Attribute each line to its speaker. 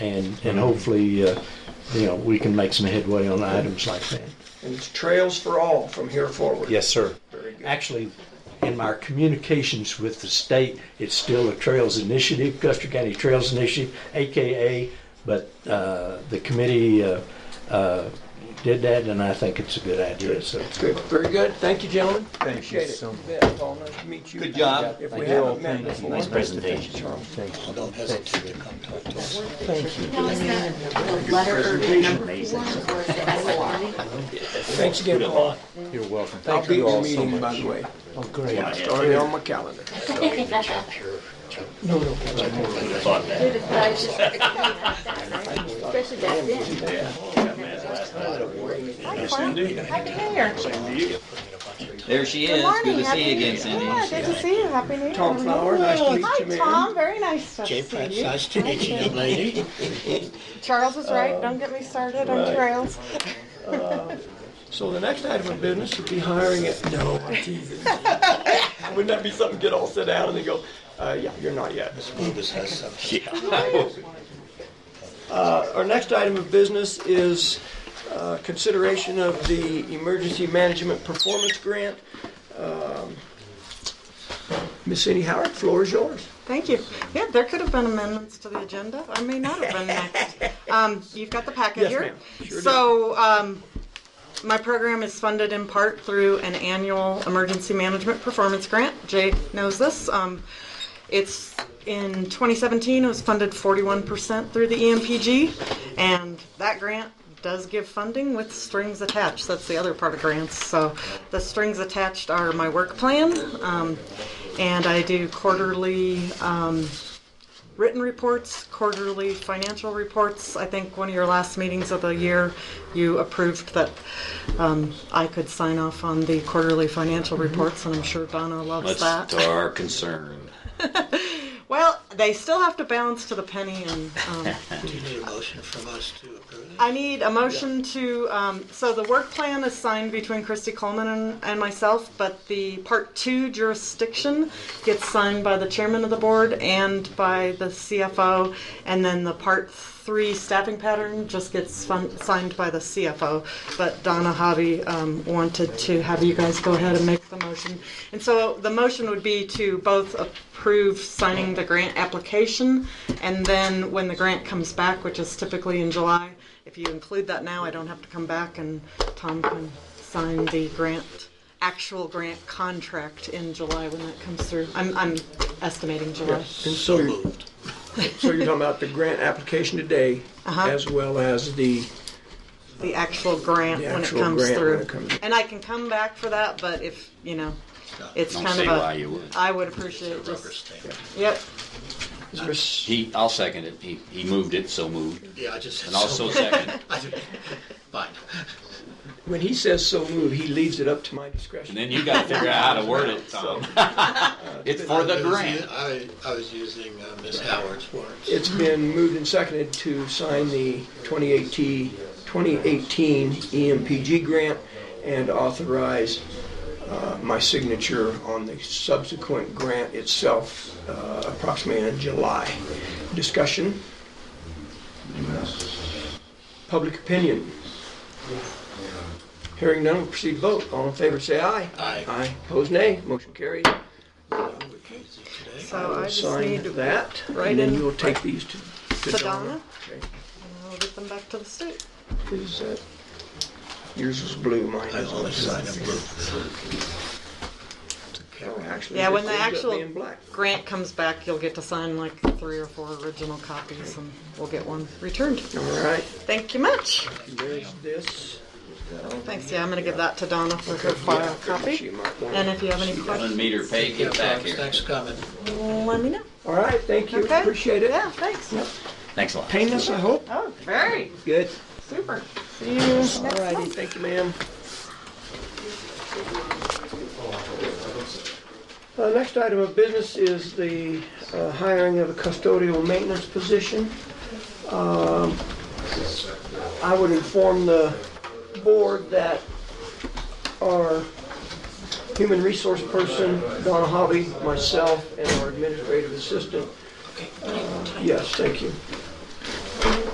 Speaker 1: And, and hopefully, uh, you know, we can make some headway on items like that.
Speaker 2: And it's trails for all from here forward.
Speaker 1: Yes, sir.
Speaker 2: Very good.
Speaker 1: Actually, in my communications with the state, it's still a Trails Initiative, Custer County Trails Initiative, AKA, but uh, the committee uh, uh, did that, and I think it's a good idea, so.
Speaker 2: Good, very good. Thank you, gentlemen.
Speaker 3: Thank you
Speaker 2: Appreciate it.
Speaker 3: so
Speaker 2: You
Speaker 3: much.
Speaker 2: bet, Paul. Nice to meet you.
Speaker 4: Good job.
Speaker 2: If we
Speaker 3: Thank you.
Speaker 2: haven't met
Speaker 3: Thank you.
Speaker 2: before.
Speaker 3: Nice
Speaker 4: presentation.
Speaker 2: Charles.
Speaker 3: Thank you.
Speaker 4: Don't hesitate to come talk to us.
Speaker 3: Thank you.
Speaker 5: Now, is that the letter or the number form or is it SOI?
Speaker 2: Thanks again, Paul.
Speaker 3: You're welcome.
Speaker 2: I'll
Speaker 3: Thank
Speaker 2: be at
Speaker 3: you
Speaker 2: your
Speaker 3: all so
Speaker 2: meeting, by
Speaker 3: much.
Speaker 2: the way.
Speaker 3: Oh, great.
Speaker 2: It's already on my calendar. No, no.
Speaker 5: Dude, if I was just- Especially back then.
Speaker 6: Happy New Year.
Speaker 4: There she
Speaker 6: Good
Speaker 4: is.
Speaker 6: morning.
Speaker 4: Good to
Speaker 6: Happy
Speaker 4: see you
Speaker 6: New
Speaker 4: again,
Speaker 6: Year.
Speaker 4: Cindy.
Speaker 6: Yeah, good to see you. Happy New Year.
Speaker 2: Tom Flower, nice to meet you,
Speaker 6: Hi,
Speaker 2: man.
Speaker 6: Tom. Very nice to
Speaker 4: Jay
Speaker 6: see
Speaker 4: Prince,
Speaker 6: you.
Speaker 4: nice to meet you, young lady.
Speaker 6: Charles is right. Don't get me started on trails.
Speaker 2: So the next item of business would be hiring it. No, I'm teasing. Wouldn't that be something? Get all sit down and they go, uh, yeah, you're not yet.
Speaker 4: Lucas has something.
Speaker 2: Uh, Our next item of business is uh, consideration of the Emergency Management Performance Grant. Um, Ms. Cindy Howard, floor is yours.
Speaker 6: Thank you. Yeah, there could have been amendments to the agenda. I may not have been next. Um, you've got the packet
Speaker 2: Yes,
Speaker 6: here.
Speaker 2: ma'am. Sure do.
Speaker 6: So, um, my program is funded in part through an annual emergency management performance grant. Jay knows this. Um, it's in 2017, it was funded 41% through the E EMPG, and that grant does give funding with strings attached. That's the other part of grants. So, the strings attached are my work plan, um, and I do quarterly um, written reports, quarterly financial reports. I think one of your last meetings of the year, you approved that um, I could sign off on the quarterly financial reports, and I'm sure Donna loves that.
Speaker 4: That's our concern.
Speaker 6: Well, they still have to balance to the penny, and um,
Speaker 4: Do you need a motion from us to approve
Speaker 6: I need a motion to. Um, so the work plan is signed between Christy Coleman and, and myself, but the part two jurisdiction gets signed by the chairman of the board and by the CFO, and then the part three staffing pattern just gets fun, signed by the CFO. But Donna Hobby um, wanted to have you guys go ahead and make the motion, and so the motion would be to both approve signing the grant application, and then when the grant comes back, which is typically in July. If you include that now, I don't have to come back and Tom can sign the grant, actual grant contract in July when that comes through. I'm, I'm estimating July.
Speaker 4: it? So moved.
Speaker 2: So you're talking about the grant application today,
Speaker 6: Uh-huh.
Speaker 2: as well as the,
Speaker 6: The actual grant
Speaker 2: The
Speaker 6: when it
Speaker 2: actual
Speaker 6: comes
Speaker 2: grant when
Speaker 6: through.
Speaker 2: it comes-
Speaker 6: And I can come back for that, but if, you know, it's
Speaker 4: Don't
Speaker 6: kind
Speaker 4: see
Speaker 6: of
Speaker 4: why
Speaker 6: a,
Speaker 4: you would.
Speaker 6: I would appreciate
Speaker 4: Rubber
Speaker 6: just,
Speaker 4: stamp.
Speaker 6: yep,
Speaker 2: is Ms.
Speaker 7: He, I'll second it. He, he moved it, so moved.
Speaker 4: Yeah, I just said
Speaker 7: And also
Speaker 4: so.
Speaker 7: second.
Speaker 4: I did- Fine.
Speaker 2: when he says so moved, he leaves it up to my discretion. Uh,
Speaker 7: And then you gotta figure out how to word it, Tom. It's for the
Speaker 4: I was u-
Speaker 7: grant.
Speaker 4: I, I was using uh, Ms. Howard's words.
Speaker 2: It's been moved and seconded to sign the 2018, 2018 EMPG grant and authorize uh, my signature on the subsequent grant itself uh, approximately in July. Discussion? Public opinion? Hearing none, we'll proceed to vote. All in favor, say aye.
Speaker 4: Aye.
Speaker 2: Aye. Opposed, nay. Motion carried.
Speaker 4: We're crazy today.
Speaker 6: so Oh, I just
Speaker 2: Sign
Speaker 6: need to, and
Speaker 2: that,
Speaker 6: write
Speaker 2: and then
Speaker 6: in-
Speaker 2: you'll take these to to
Speaker 6: To
Speaker 2: Donna.
Speaker 6: Donna?
Speaker 2: Okay.
Speaker 6: I'll get them back to the state.
Speaker 2: Is that, yours was blue, mine
Speaker 4: I
Speaker 2: is
Speaker 4: always sign a blue.
Speaker 2: Oh, actually,
Speaker 6: Yeah,
Speaker 2: it
Speaker 6: when the
Speaker 2: ends up
Speaker 6: actual-
Speaker 2: being black.
Speaker 6: Grant comes back, you'll get to sign like three or four original copies and we'll get one returned.
Speaker 2: All right,
Speaker 6: Thank you much.
Speaker 2: there's this.
Speaker 6: Thanks, yeah, I'm gonna give that to Donna for her
Speaker 2: Yeah,
Speaker 6: file
Speaker 2: She
Speaker 6: copy.
Speaker 2: might want.
Speaker 6: And if you have any
Speaker 7: One
Speaker 6: questions,
Speaker 7: meter pay,
Speaker 4: Yeah,
Speaker 7: get back
Speaker 4: folks,
Speaker 7: here.
Speaker 4: Thanks for coming.
Speaker 6: let me know.
Speaker 2: All right, thank you,
Speaker 6: Okay.
Speaker 2: appreciate it.
Speaker 6: Yeah, thanks.
Speaker 7: Thanks a lot.
Speaker 2: Painless, I hope?
Speaker 6: Oh, very,
Speaker 2: Good.
Speaker 6: super. See you next
Speaker 2: All righty,
Speaker 6: month.
Speaker 2: thank you, ma'am. Uh, next item of business is the uh, hiring of a custodial maintenance position. Um, I would inform the board that our human resource person, Donna Hobby, myself, and our administrative assistant. uh, Yes, thank you.